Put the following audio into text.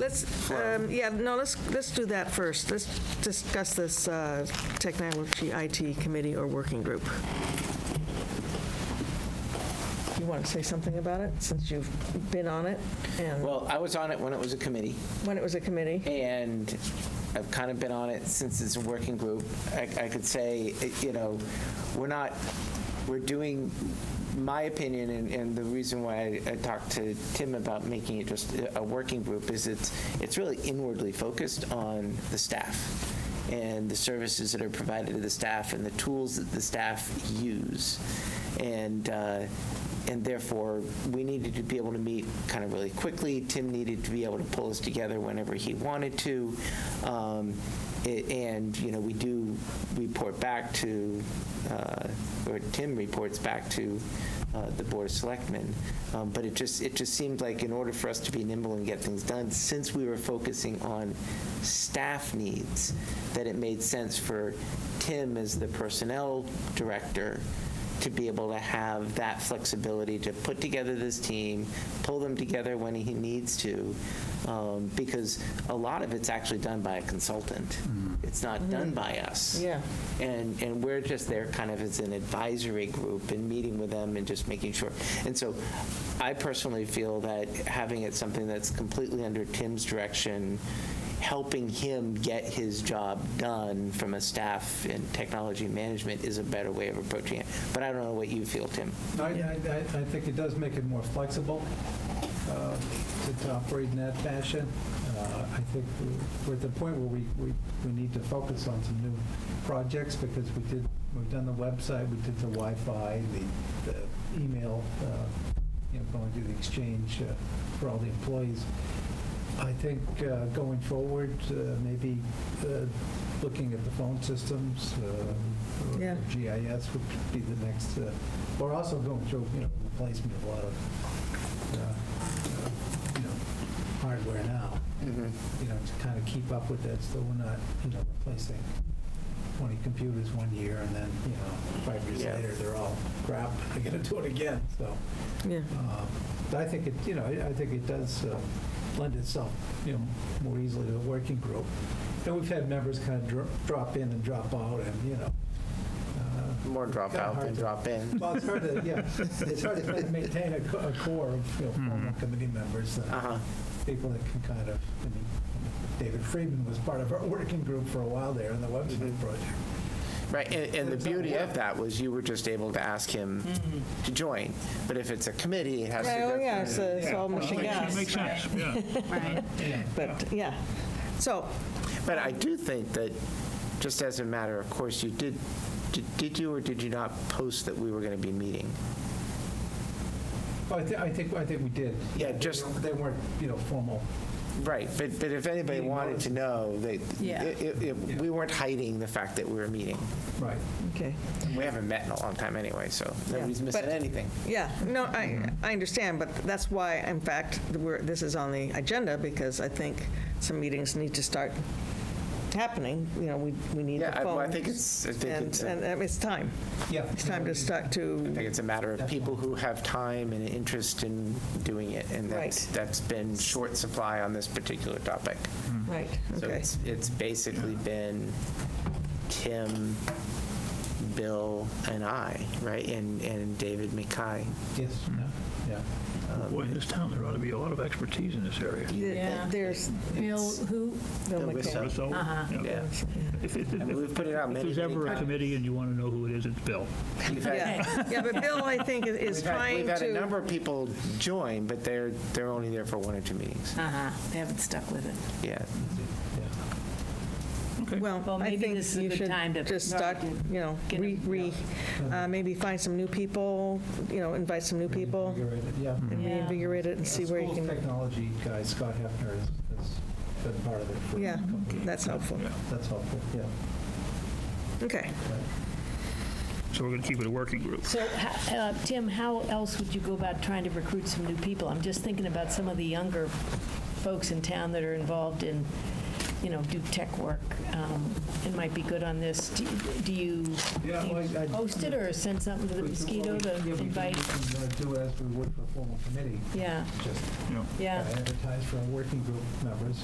Let's, um, yeah, no, let's, let's do that first. Let's discuss this uh, technology IT committee or working group. You want to say something about it, since you've been on it, and Well, I was on it when it was a committee, when it was a committee? and I've kind of been on it since it's a working group. I, I could say, eh, you know, we're not, we're doing, my opinion, and, and the reason why I, I talked to Tim about making it just a- a working group is it's, it's really inwardly focused on the staff and the services that are provided to the staff and the tools that the staff use. And, uh, and therefore, we needed to be able to meet kind of really quickly. Tim needed to be able to pull us together whenever he wanted to. Um, a- And, you know, we do report back to, uh, or Tim reports back to uh, the Board of Selectmen. Um, But it just, it just seemed like in order for us to be nimble and get things done, since we were focusing on staff needs, that it made sense for Tim as the Personnel Director to be able to have that flexibility to put together this team, pull them together when he needs to, um, because a lot of it's actually done by a consultant. It's not done by us. Yeah. And, and we're just there kind of as an advisory group and meeting with them and just making sure. And so I personally feel that having it something that's completely under Tim's direction, helping him get his job done from a staff and technology management is a better way of approaching it. But I don't know what you feel, Tim. I, I, I- I think it does make it more flexible uh, to- to operate in that fashion. Uh, I think we're- we're at the point where we, we, we need to focus on some new projects because we did, we've done the website, we did the Wi-Fi, the, the email, uh, you know, going to the exchange uh, for all the employees. I think uh, going forward, uh, maybe uh, looking at the phone systems, um, or Yeah. GIS would be the next, uh, we're also going through, you know, replacement of a lot of, uh, uh, you know, hardware now, Mm-hmm. you know, to kind of keep up with that, so we're not, you know, replacing 20 computers one year and then, you know, five years Yeah. later, they're all crap, I gotta do it again, so. Yeah. Um, But I think it, you know, I I think it does uh, lend itself, you know, more easily to a working group. And we've had members kind of drop in and drop out and, you know. uh, More drop Kinda out hard than to- drop in. Well, it's hard to, yeah, it's hard to maintain a co- a core of, you know, former Hmm. committee members, uh, Uh-huh. people that can kind of, I mean, David Friedman was part of our working group for a while there in the website Mm-hmm. project. Right, and, and the beauty of that was you were just able to ask him to join. But if it's a committee, it has to Mm-hmm. Oh, go yeah, through- it's a- it's all machine Makes makes sense, yeah. Right. But, yeah. So, But I do think that, just as a matter of course, you did, did- did you or did you not post that we were going to be meeting? Well, I thi- I think, I think we did. Yeah, just- They weren't, you know, formal. Right, but, but if anybody Meeting wanted to know, they, Yeah. it- it- it- we weren't hiding the fact that we were meeting. Right. okay. We haven't met in a long time anyway, so nobody's missing But- anything. Yeah, no, I, I understand, but that's why, in fact, we're, this is on the agenda, because I think some meetings need to start happening, you know, we, we need the Yeah, I- well, phone. I think it's, I think And, it's, and a- um, it's time. Yeah. It's time to start I think to, it's a matter of people who have time and interest in doing it. And that's, Right. that's been short supply on this particular topic. right, So okay. it's, it's basically been Tim, Bill, and I, right? And, and David McKay. Yes, yeah, yeah. Boy, in this town, there ought to be a lot of expertise in this area. Th- Yeah. There's, Bill, who, Bill Bill McCall. Whistle. So, yeah. Yeah. If it- I mean, if- we've put it out if many, there's many ever a times. committee and you want to know who it is, it's Bill. We've had- yeah, yeah, but Bill, I think, is- is We've had, trying we've had a to, number of people join, but they're, they're only there for one or two meetings. Uh. uh-huh, they haven't stuck with it. Yeah. Okay. Well, well, I maybe think this is a you good should time to just start, start to you know, get re, them, re, uh, maybe find some new people, you know, invite some new Mm-hmm. people, You're right, Yeah. and Yeah. reinvigorate it and see where you School can, technology guy, Scott Hefner, has has been part of it for. a Yeah. couple of years. that's helpful. Yeah. That's helpful, yeah. Okay. So we're going to keep it a working group. So, h- uh, Tim, how else would you go about trying to recruit some new people? I'm just thinking about some of the younger folks in town that are involved in you know, do tech work um, and might be good on this? Do do you do Yeah, you well, I- I- post it or send something to the mosquito to Yeah, we can- invite? we can, uh, Do as we would for a formal committee, Yeah, just you know. uh, yeah. advertise for our working group members.